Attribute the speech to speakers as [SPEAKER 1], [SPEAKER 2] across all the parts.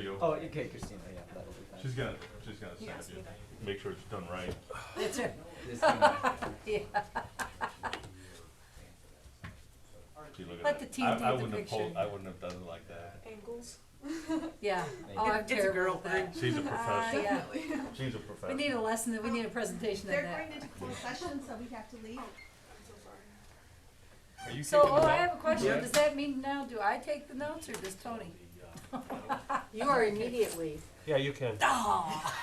[SPEAKER 1] you.
[SPEAKER 2] Oh, okay, Christina, yeah, that'll be fine.
[SPEAKER 1] She's gonna, she's gonna send it to you. Make sure it's done right.
[SPEAKER 3] That's right.
[SPEAKER 2] This one,
[SPEAKER 3] Yeah.
[SPEAKER 1] Gee, look at that.
[SPEAKER 3] Let the team
[SPEAKER 1] I-
[SPEAKER 3] do
[SPEAKER 1] I
[SPEAKER 3] the
[SPEAKER 1] wouldn't have
[SPEAKER 3] picture.
[SPEAKER 1] pulled- I wouldn't have done it like that.
[SPEAKER 4] Angles.
[SPEAKER 3] Yeah.
[SPEAKER 2] Thank
[SPEAKER 3] Oh,
[SPEAKER 2] you.
[SPEAKER 3] I'm
[SPEAKER 4] It's a
[SPEAKER 3] terrible
[SPEAKER 4] girl
[SPEAKER 3] at that. Oh,
[SPEAKER 1] She's a professional.
[SPEAKER 3] Uh, yeah.
[SPEAKER 1] She's a
[SPEAKER 3] We
[SPEAKER 1] professional.
[SPEAKER 3] need a lesson, we need a presentation on
[SPEAKER 5] They're going
[SPEAKER 3] that.
[SPEAKER 5] into closed session, so we have to leave.
[SPEAKER 1] Are you
[SPEAKER 3] So,
[SPEAKER 1] keeping
[SPEAKER 3] oh, I
[SPEAKER 1] that?
[SPEAKER 3] have a question.
[SPEAKER 2] Yeah.
[SPEAKER 3] Does that mean now, do I take the notes or does Tony?
[SPEAKER 6] You are immediately.
[SPEAKER 7] Yeah, you can.
[SPEAKER 3] Oh,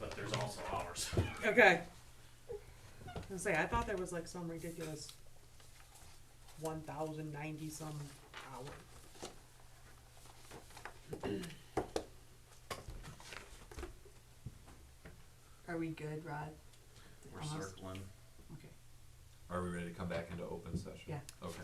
[SPEAKER 1] But there's also hours.
[SPEAKER 4] Okay. I was gonna say, I thought there was like some ridiculous one thousand ninety some hour. Are we good, Rod?
[SPEAKER 8] We're
[SPEAKER 4] Almost?
[SPEAKER 8] circling.
[SPEAKER 4] Okay.
[SPEAKER 8] Are we ready to come back into open session?
[SPEAKER 4] Yeah.
[SPEAKER 8] Okay.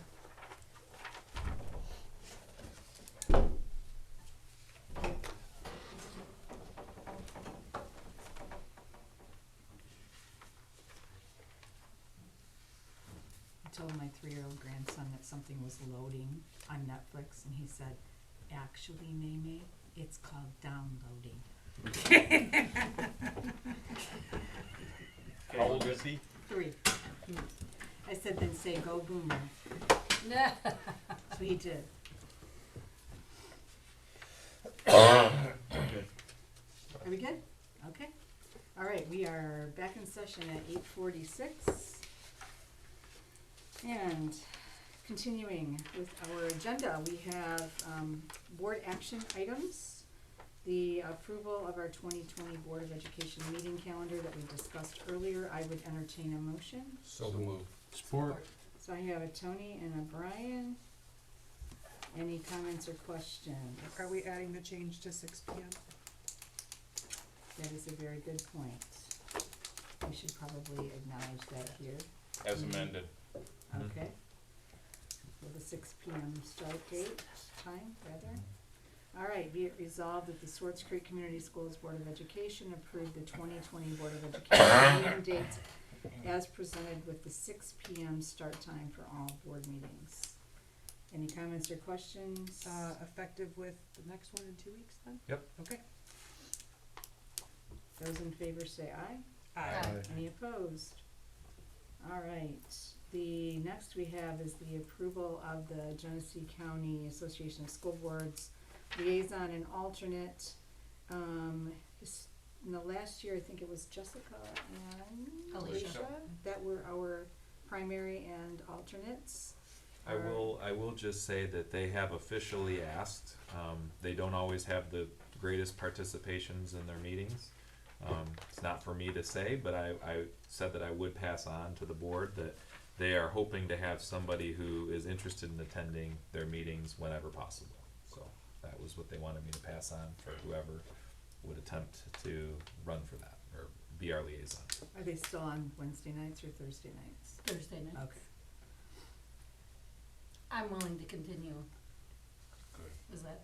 [SPEAKER 9] I told my three-year-old grandson that something was loading on Netflix, and he said, "Actually, Maymay, it's called downloading."
[SPEAKER 1] How old is he?
[SPEAKER 9] Three. I said, "Then say go boomer."
[SPEAKER 3] no.
[SPEAKER 9] So he did. Are we good? Okay. All right, we are back in session at eight forty-six. And continuing with our agenda, we have, um, board action items. The approval of our twenty twenty Board of Education meeting calendar that we discussed earlier, I would entertain a motion.
[SPEAKER 7] So move.
[SPEAKER 9] Support. So I have a Tony and a Brian. Any comments or questions?
[SPEAKER 4] Are we adding the change to six P M?
[SPEAKER 9] That is a very good point. We should probably acknowledge that here,
[SPEAKER 1] As amended. Mhm.
[SPEAKER 9] okay? With a six P M start date, time, rather. All right, be it resolved that the Swartz Creek Community Schools Board of Education approved the twenty twenty Board of Education meeting dates as presented with the six P M start time for all board meetings. Any comments or questions?
[SPEAKER 4] Uh, effective with the next one in two weeks then?
[SPEAKER 8] Yep.
[SPEAKER 4] Okay.
[SPEAKER 9] Those in favor say aye.
[SPEAKER 4] Aye.
[SPEAKER 9] Any opposed? All right, the next we have is the approval of the Genesee County Association of School Boards Liaison and Alternate. Um, this, in the last year, I think it was Jessica and
[SPEAKER 3] Alicia.
[SPEAKER 9] Alicia that were our primary and alternates.
[SPEAKER 8] I
[SPEAKER 9] Alright.
[SPEAKER 8] will, I will just say that they have officially asked, um, they don't always have the greatest participations in their meetings. Um, it's not for me to say, but I, I said that I would pass on to the board that they are hoping to have somebody who is interested in attending their meetings whenever possible. So that was what they wanted me to pass on for whoever would attempt to run for that or be our liaison.
[SPEAKER 9] Are they still on Wednesday nights or Thursday nights?
[SPEAKER 3] Thursday night.
[SPEAKER 9] Okay.
[SPEAKER 3] I'm willing to continue. Was that,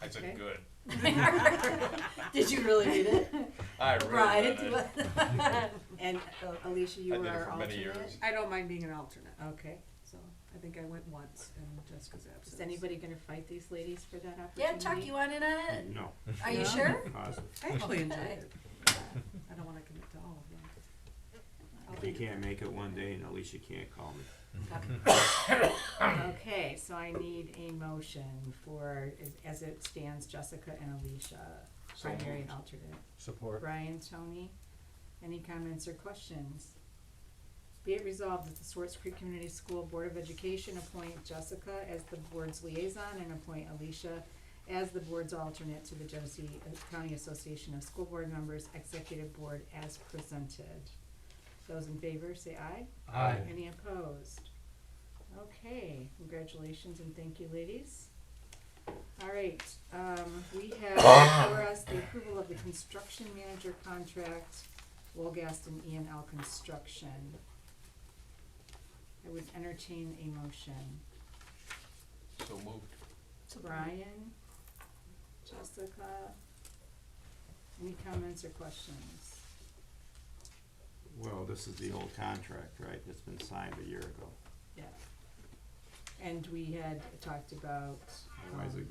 [SPEAKER 1] I said
[SPEAKER 9] Okay.
[SPEAKER 1] good.
[SPEAKER 3] did you really read it?
[SPEAKER 1] I
[SPEAKER 3] Right,
[SPEAKER 1] really
[SPEAKER 3] it
[SPEAKER 1] did.
[SPEAKER 3] was-
[SPEAKER 9] And uh, Alicia,
[SPEAKER 1] I
[SPEAKER 9] you
[SPEAKER 1] did
[SPEAKER 9] were
[SPEAKER 1] it
[SPEAKER 9] our
[SPEAKER 1] for
[SPEAKER 9] alternate?
[SPEAKER 1] many years.
[SPEAKER 4] I don't mind being an alternate,
[SPEAKER 9] Okay,
[SPEAKER 4] so I think I went once in Jessica's absence.
[SPEAKER 9] is anybody gonna fight these ladies for that opportunity?
[SPEAKER 3] Yeah, Chuck, you want in on it?
[SPEAKER 10] No,
[SPEAKER 3] Are you
[SPEAKER 4] No.
[SPEAKER 3] sure?
[SPEAKER 4] I actually enjoyed
[SPEAKER 3] Okay.
[SPEAKER 4] it. I don't wanna commit to all of them.
[SPEAKER 10] if you can't make it one day, and Alicia can't call me.
[SPEAKER 9] Okay, so I need a motion for, as it stands, Jessica and Alicia,
[SPEAKER 10] So
[SPEAKER 9] primary and
[SPEAKER 10] moved.
[SPEAKER 9] alternate.
[SPEAKER 7] Support.
[SPEAKER 9] Brian, Tony, any comments or questions? Be it resolved that the Swartz Creek Community School Board of Education appoint Jessica as the board's liaison and appoint Alicia as the board's alternate to the Genesee uh, County Association of School Board Members Executive Board as presented. Those in favor, say aye.
[SPEAKER 7] Aye.
[SPEAKER 9] Any opposed? Okay, congratulations and thank you, ladies. All right, um, we have for us the approval of the construction manager contract, Wolgaston E and L Construction. I would entertain a motion.
[SPEAKER 1] So moved.
[SPEAKER 9] Brian, Jessica, any comments or questions?
[SPEAKER 10] Well, this is the old contract, right, that's been signed a year ago.
[SPEAKER 9] Yeah. And we had talked about.
[SPEAKER 10] Why is it
[SPEAKER 9] um,